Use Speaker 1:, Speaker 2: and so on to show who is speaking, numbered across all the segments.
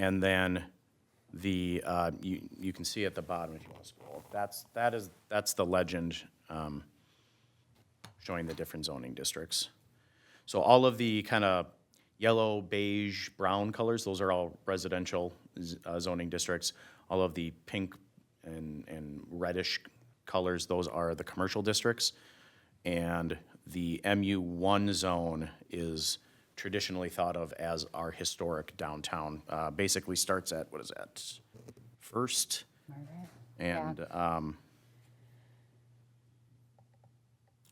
Speaker 1: And then the, uh, you, you can see at the bottom if you want to scroll. That's, that is, that's the legend um, showing the different zoning districts. So all of the kind of yellow, beige, brown colors, those are all residential z- uh, zoning districts. All of the pink and, and reddish colors, those are the commercial districts. And the MU1 zone is traditionally thought of as our historic downtown. Uh, Basically starts at, what is that, First? And um,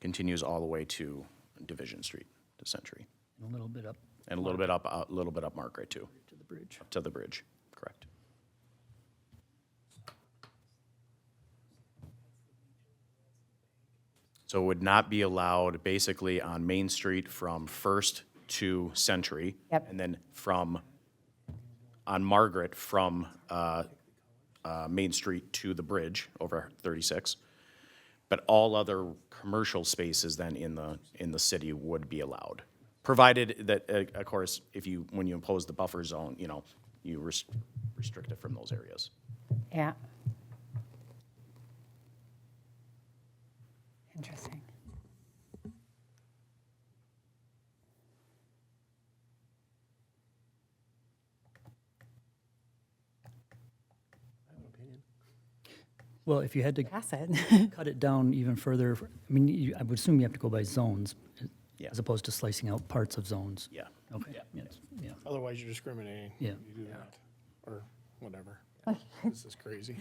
Speaker 1: continues all the way to Division Street, to Century.
Speaker 2: a little bit up
Speaker 1: And a little bit up, a little bit up Margaret too,
Speaker 2: to the bridge.
Speaker 1: to the bridge, correct. So it would not be allowed basically on Main Street from First to Century.
Speaker 3: Yep.
Speaker 1: And then from, on Margaret, from uh, uh, Main Street to the bridge over 36. But all other commercial spaces then in the, in the city would be allowed. Provided that, uh, of course, if you, when you impose the buffer zone, you know, you res- restrict it from those areas.
Speaker 3: Yeah. Interesting.
Speaker 2: Well, if you had to
Speaker 3: That's it.
Speaker 2: cut it down even further, I mean, you- I would assume you have to go by zones
Speaker 1: Yeah.
Speaker 2: as opposed to slicing out parts of zones.
Speaker 1: Yeah.
Speaker 2: Okay, yes, yeah.
Speaker 4: Otherwise, you're discriminating.
Speaker 2: Yeah.
Speaker 4: You do that, or whatever. This is crazy.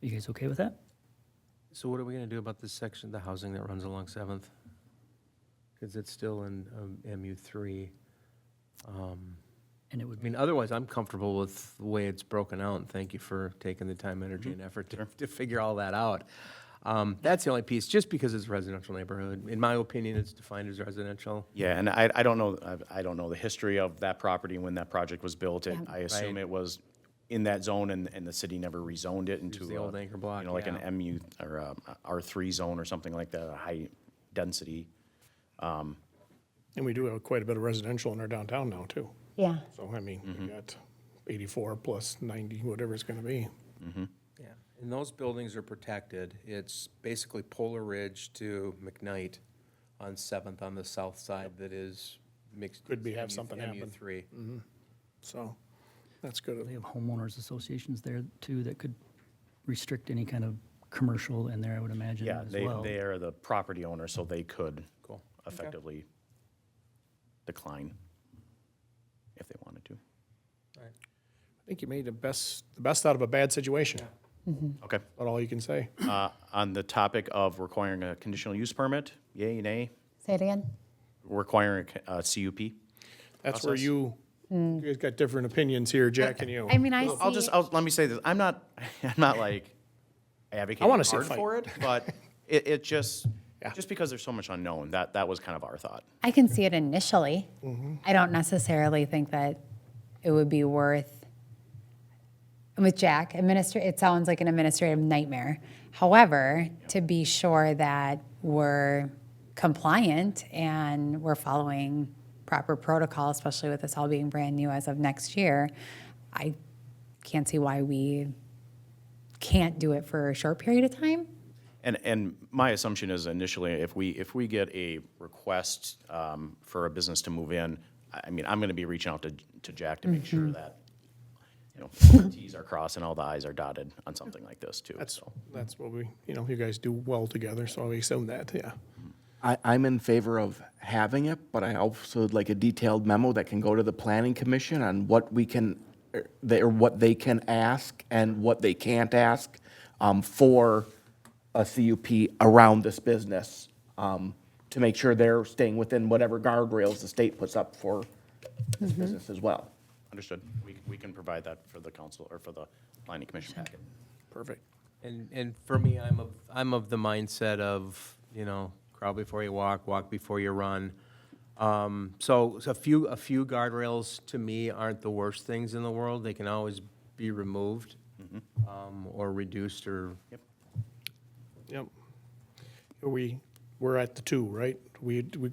Speaker 2: You guys okay with that?
Speaker 5: So what are we going to do about this section, the housing that runs along Seventh? Because it's still in um, MU3.
Speaker 2: And it would
Speaker 5: I
Speaker 2: be,
Speaker 5: mean, otherwise, I'm comfortable with the way it's broken out, and thank you for taking the time, energy, and effort to, to figure all that out. Um, That's the only piece, just because it's a residential neighborhood. In my opinion, it's defined as residential.
Speaker 1: Yeah, and I, I don't know, I- I don't know the history of that property when that project was built. It- I assume
Speaker 5: Right.
Speaker 1: it was in that zone and, and the city never rezoned it into.
Speaker 5: the
Speaker 1: a,
Speaker 5: old anchor block,
Speaker 1: You know, like an
Speaker 5: yeah.
Speaker 1: MU or a R3 zone or something like that, a high density.
Speaker 4: And we do have quite a bit of residential in our downtown now, too.
Speaker 3: Yeah.
Speaker 4: So, I mean,
Speaker 3: Mm-hmm.
Speaker 4: we got 84 plus 90, whatever it's going to be.
Speaker 5: Yeah, and those buildings are protected. It's basically Polar Ridge to McKnight on Seventh on the south side that is mixed.
Speaker 4: Could be,
Speaker 5: use
Speaker 4: have something happen.
Speaker 5: MU3.
Speaker 4: So, that's good.
Speaker 2: they have homeowners associations there too that could restrict any kind of commercial in there, I would imagine
Speaker 1: Yeah,
Speaker 2: as
Speaker 1: they,
Speaker 2: well.
Speaker 1: they are the property owner, so they could
Speaker 5: Cool.
Speaker 1: effectively decline if they wanted to.
Speaker 4: I think you made the best, the best out of a bad situation.
Speaker 1: Okay.
Speaker 4: About all you can say.
Speaker 1: Uh, On the topic of requiring a conditional use permit, yay, nay,
Speaker 3: Say it again.
Speaker 1: requiring a uh, c- a CUP?
Speaker 4: That's where you, you guys got different opinions here, Jack and you.
Speaker 3: Mm. I mean, I see.
Speaker 1: I'll just, I'll, let me say this, I'm not, I'm not like advocating
Speaker 4: wanna see a
Speaker 1: hard
Speaker 4: fight.
Speaker 1: for it, but it, it just,
Speaker 4: Yeah.
Speaker 1: just because there's so much unknown, that, that was kind of our thought.
Speaker 3: I can see it initially. I don't necessarily think that it would be worth. And with Jack, administr- it sounds like an administrative nightmare. However, to be sure that we're compliant and we're following proper protocol, especially with this all being brand new as of next year, I can't see why we can't do it for a short period of time.
Speaker 1: And, and my assumption is initially, if we, if we get a request um, for a business to move in, I I mean, I'm gonna be reaching out to, to Jack to make sure that, you know, Ts are crossed and all the Is are dotted on something like this too.
Speaker 4: That's,
Speaker 1: so.
Speaker 4: that's what we, you know, you guys do well together, so we assume that, yeah.
Speaker 6: I, I'm in favor of having it, but I also would like a detailed memo that can go to the planning commission on what we can, er, they, or what they can ask and what they can't ask um, for a CUP around this business, um, to make sure they're staying within whatever guardrails the state puts up for this business as well.
Speaker 1: Understood, we, we can provide that for the council, or for the planning commission packet.
Speaker 4: Perfect.
Speaker 5: And, and for me, I'm of, I'm of the mindset of, you know, crawl before you walk, walk before you run. Um, so, so a few, a few guardrails to me aren't the worst things in the world. They can always be removed, um, or reduced or
Speaker 4: Yep. We, we're at the two, right? We, we